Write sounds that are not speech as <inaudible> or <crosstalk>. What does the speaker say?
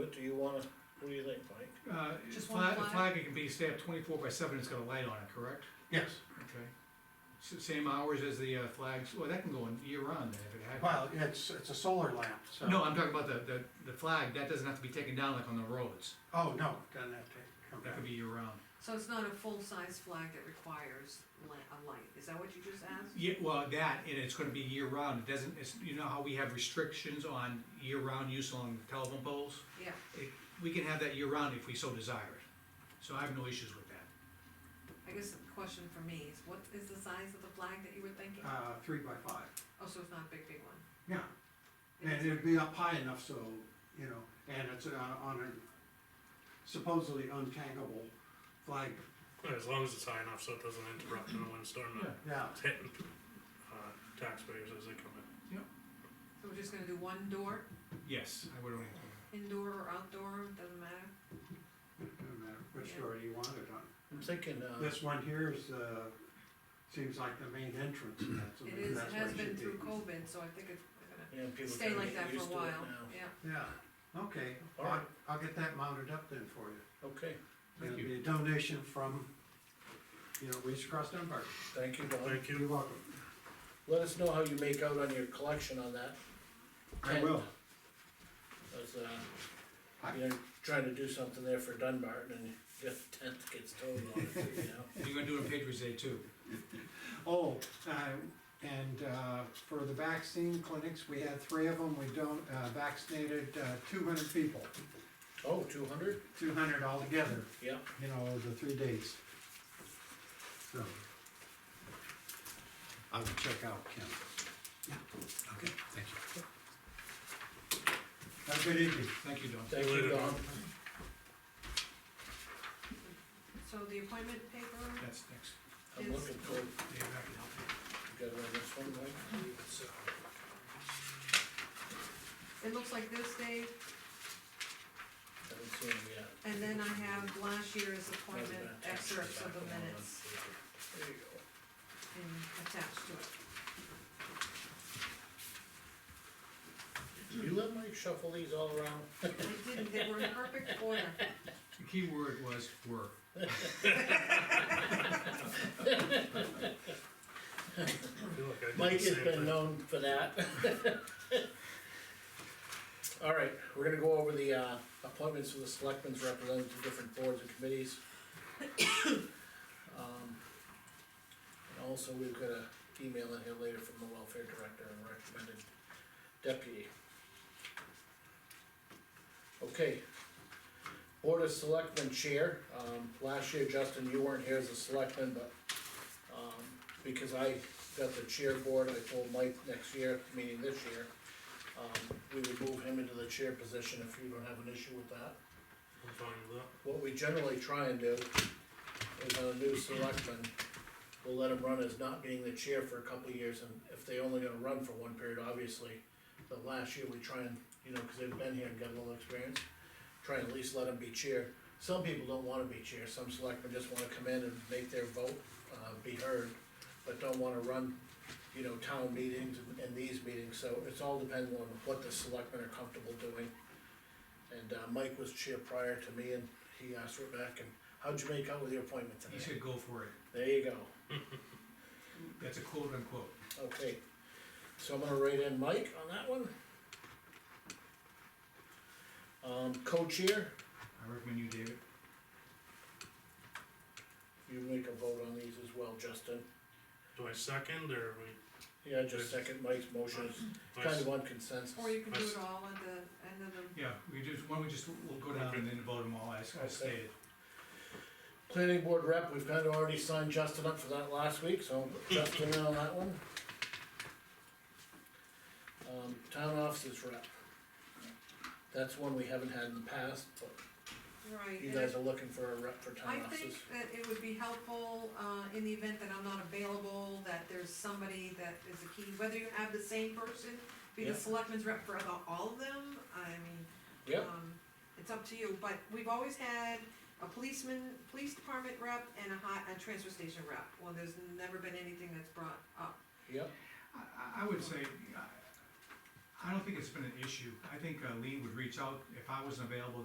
But do you wanna, what do you think, Mike? Uh, Just flag, one flag? flag, it can be, stay up twenty-four by seven, it's got a light on it, correct? Yes, Okay. S- Same hours as the uh, flags, well, that can go in year-round then, if it had. well, it's, it's a solar lamp, so. No, I'm talking about the, the, the flag, that doesn't have to be taken down like on the roads, Oh, no, doesn't have to come that back. could be year-round. So it's not a full-size flag that requires la- a light, is that what you just asked? Yeah, well, that, and it's gonna be year-round, it doesn't, it's, you know how we have restrictions on year-round use on telephone poles? Yeah, It, we can have that year-round if we so desire it, so I have no issues with that. I guess the question for me is, what is the size of the flag that you were thinking? Uh, three by five, Oh, so it's not a big, big one? yeah, and It is- it'd be up high enough so, you know, and it's uh, on a supposedly untangable flag, Yeah, as long as it's high enough so it doesn't interrupt in a windstorm that yeah. it's hitting uh, taxpayers as they come in. So we're just gonna do one door, Yes, I would only, indoor or outdoor, doesn't matter? Doesn't matter which Yeah. door you want it on. I'm thinking, uh, This one here is, uh, seems like the main entrance, and that's, It is, it that's where has it been should be. through COVID, so I think it's gonna you know, people stay kinda like get that for a used to it while, now. yeah. Yeah, okay, All I'll, right. I'll get that mounted up then for you. Okay, Thank It'll you. be a donation from, you know, Reach Across Dunbar. thank you, Don. Thank You're you. welcome. Let us know how you make out on your collection on that. I will. As, uh, you're trying to do something there for Dunbar and then your tenth gets told on it, you know? you're gonna do it on Patriots Day too. Oh, uh, and, uh, for the vaccine clinics, we had three of them, we don't, uh, vaccinated, uh, two hundred people, Oh, two hundred? two hundred altogether, Yeah, you know, over the three days. So. I will check out Ken. Okay, thank you. Have a good evening. Thank you, Don. thank you, Later, Don. So the appointment paper, That's next. I'm looking for, you Dave, I can help you. got one, this one, Mike? It's, uh, it looks like this, Dave, Haven't seen him yet. and then I have last year's Hasn't appointment been attached to the excerpts of back the one. minutes There you go. in, attached to it. You let Mike shuffle these all around? I didn't, they were in perfect order. The key word was were. I feel like I did the Mike has same been thing. known for that. <laughs> All right, we're gonna go over the, uh, appointments for the selectmen's representatives to different boards and committees. <coughs> Um, And also, we've got a email in here later from the welfare director and recommended deputy. Okay. Board of Selectmen Chair, um, last year, Justin, you weren't here as a selectman, but, um, because I got the chair board, I told Mike next year, meaning this year, um, we would move him into the chair position if you don't have an issue with that. I'm fine with that. What we generally try and do is on a new selectman, we'll let him run as not being the chair for a couple of years, and if they only gonna run for one period, obviously. But last year, we try and, you know, cause they've been here and got a little experience, try and at least let them be chair. Some people don't wanna be chair, some selectmen just wanna come in and make their vote, uh, be heard, but don't wanna run, you know, town meetings and these meetings, so it's all dependent on what the selectmen are comfortable doing. And, uh, Mike was chair prior to me, and he asked Rebecca, how'd you make out with your appointment He today? said go for it. There you go, That's a quote unquote. okay. So I'm gonna write in Mike on that one. Um, co-chair, I recommend you, David. you make a vote on these as well, Justin. Do I second or we? Yeah, just second Mike's motion, I it's kind of on consensus. Or you can do it all at the end of the, Yeah, we just, why don't we just, we'll go down and then vote them all as as stated. Planning board rep, we've kind of already signed Justin up for that last week, so Justin in on that one. Um, town offices rep. That's one we haven't had in the past, but right. you and I- guys are looking for a rep for I town think offices. that it would be helpful, uh, in the event that I'm not available, that there's somebody that is a key, whether you have the same person, be the Yeah. selectman's rep for about all of them, I mean, Yep, um, it's up to you, but we've always had a policeman, police department rep and a hot, a transfer station rep. Well, there's never been anything that's brought up. yep, I, I- I would say, I- I don't think it's been an issue. I think uh, Lean would reach out if I wasn't available.